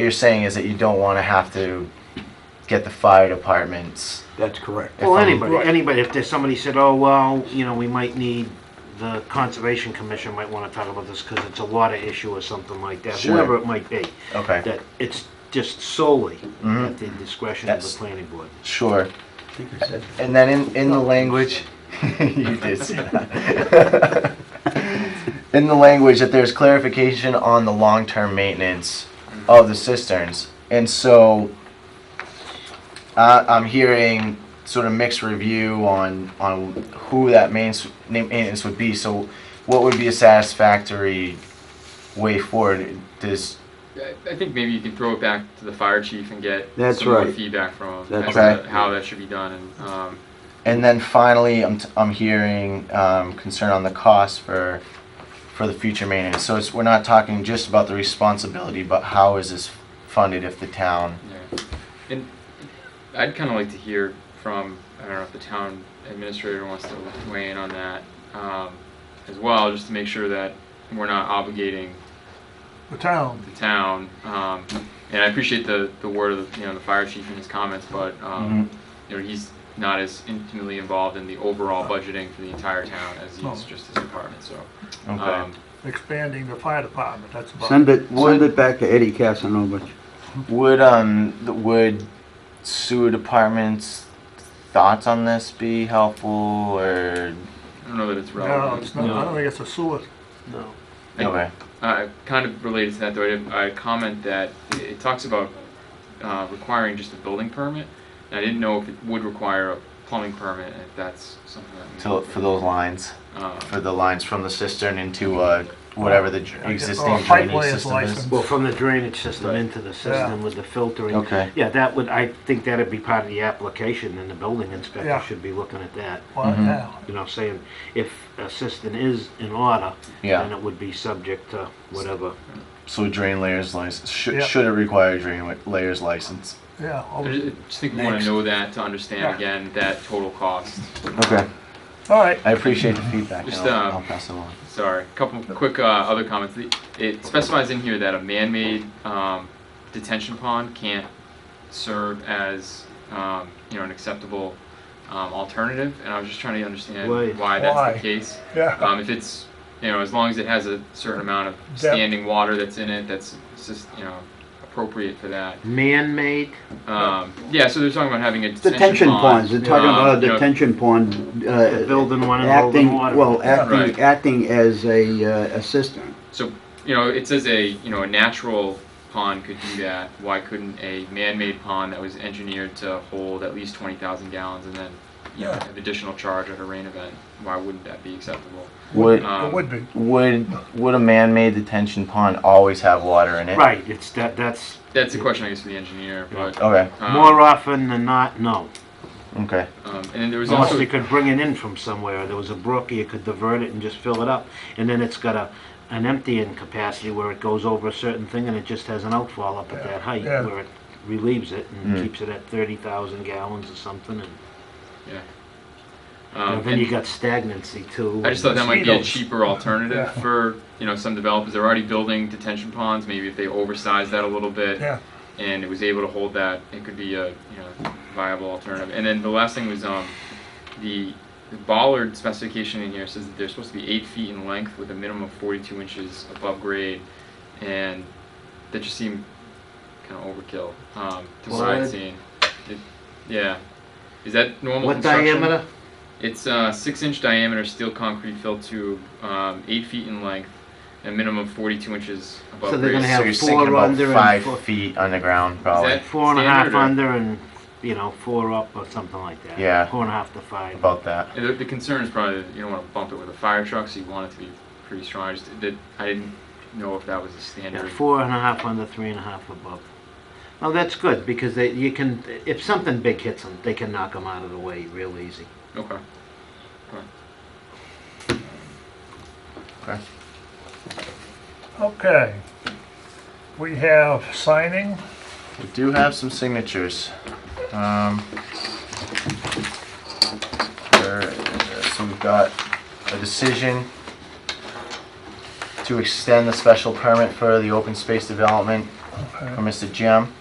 you're saying is that you don't want to have to get the fire departments. That's correct. if Well, I'm- anybody, anybody, if there's somebody said, oh, well, you know, we might need, the Conservation Commission might wanna talk about this, cause it's a water issue or something like that, Sure. whoever it might be, Okay, that it's just solely Mhm. at the discretion of the That's- planning board. sure. I think I said And then in, in the language, you did say that. in the language that there's clarification on the long-term maintenance of the cisterns, and so I I'm hearing sort of mixed review on on who that mains- na- maintenance would be. So, what would be a satisfactory way forward? Does I I think maybe you can throw it back to the fire chief and get That's some more right. feedback from him as That's Okay. to how that should be done. And um, And then finally, I'm, t- I'm hearing um, concern on the cost for for the future maintenance. So it's, we're not talking just about the responsibility, but how is this funded if the town? yeah. and I'd kind of like to hear from I don't know if the town administrator wants to weigh in on that um, as well, just to make sure that we're not obligating The town. the town. Um, and I appreciate the, the word of the, you know the fire chief and his comments, but um, you know he's not as intimately involved in the overall budgeting for the entire town as he is No. just his department. So. Okay. Um, expanding the fire department, that's about. Send it, send So- it back to Eddie Casanova. would um the, would sewer departments thoughts on this be helpful or I don't know that it's relevant. No, it's not, I don't think it's a sewer. No. I- okay? Uh, kind of related to that, though, I, I comment that it, it talks about uh, requiring just a building permit. And I didn't know if it would require a plumbing permit, and if that's something that. we- To, for those lines, Uh, for the lines from the cistern into uh, whatever the dr- Like, existing or a pipe drainage layer's system is. license. Well, from the drainage system Right. into the system with the filtering. Okay. Yeah, that would, I think that'd be part of the application, and the building inspector Yeah. should be looking at that. Well, Mhm. yeah. You know, saying if a system is in order, then Yeah. it would be subject to whatever. So drain layers license should Yeah. should it require drain wa- layers license? Yeah, oh, I all ju- I just think we want to Next. know that to understand Yeah. again that total cost. Okay. right. I appreciate the feedback. Just, and I'll, uh, I'll pass it on. Sorry, a couple quick uh, other comments. The- It specifies in here that a man-made um, detention pond can't serve as um, you know an acceptable um, alternative, and I was just trying to understand Why? why that's Why? the case. Yeah, Um, if it's, you know, as long as it has a certain amount of Depth. standing water that's in it, that's just, you know, appropriate for that. Man-made, Um, yeah, so they're talking about having a detention, Detention pond. ponds, they're talking um, about a you know, detention pond, the uh, building one and holding acting, water. well, Right. acting, acting as a, uh, a cistern. So, you know, it says a, you know, a natural pond could do that. Why couldn't a man-made pond that was engineered to hold at least 20,000 gallons and then, you know, Yeah. an additional charge at a rain event? Why wouldn't that be acceptable? Would Um, it would be. would would a man-made detention pond always have water in it? Right, it's that, that's, That's a question, I guess, for the engineer, but. Okay. um, uh, more often than not, no. Okay. um, and then there was Unless also. they could bring it in from somewhere, there was a brook, you could divert it and just fill it up. And then it's got a, an emptying capacity where it goes over a certain thing and it just has an outfall up at that height Yeah. where it relieves it and Hmm. Mm. keeps it at thirty thousand gallons or something and um, And then and- you got stagnancy too. I just thought that might be a Mosquitoes. cheaper alternative for, you know, some developers. They're already building detention ponds. Maybe if they oversized that a little bit Yeah, and it was able to hold that, it could be a, you know, viable alternative. And then the last thing was, um, the the bollard specification in here says that they're supposed to be eight feet in length with a minimum of forty-two inches above grade. And that just seemed kind of overkill, um, to what Bollard? I'd seen. It- Yeah. Is that normal What construction? diameter? It's uh, six inch diameter steel concrete fill tube, um, eight feet in length, and a minimum of 42 inches above So they're grade. gonna have so you're four sinking about under and five four- feet underground, probably that- Four and a half Standard under and, you know, four up or something like that. Yeah. Four and a half to five. about that. And the, the concern is probably that you don't want to bump it with a fire truck, so you want it to be pretty strong. I, just, that, I didn't know if that was a Yeah, standard. four and a half under, three and a half above. No, that's good, because they, you can, if something big hits them, they can knock them out of the way real easy. Okay. okay. We have signing. We do have some signatures. Um, there- so we've got a decision to extend the special permit for the open space development for Mr. Jim.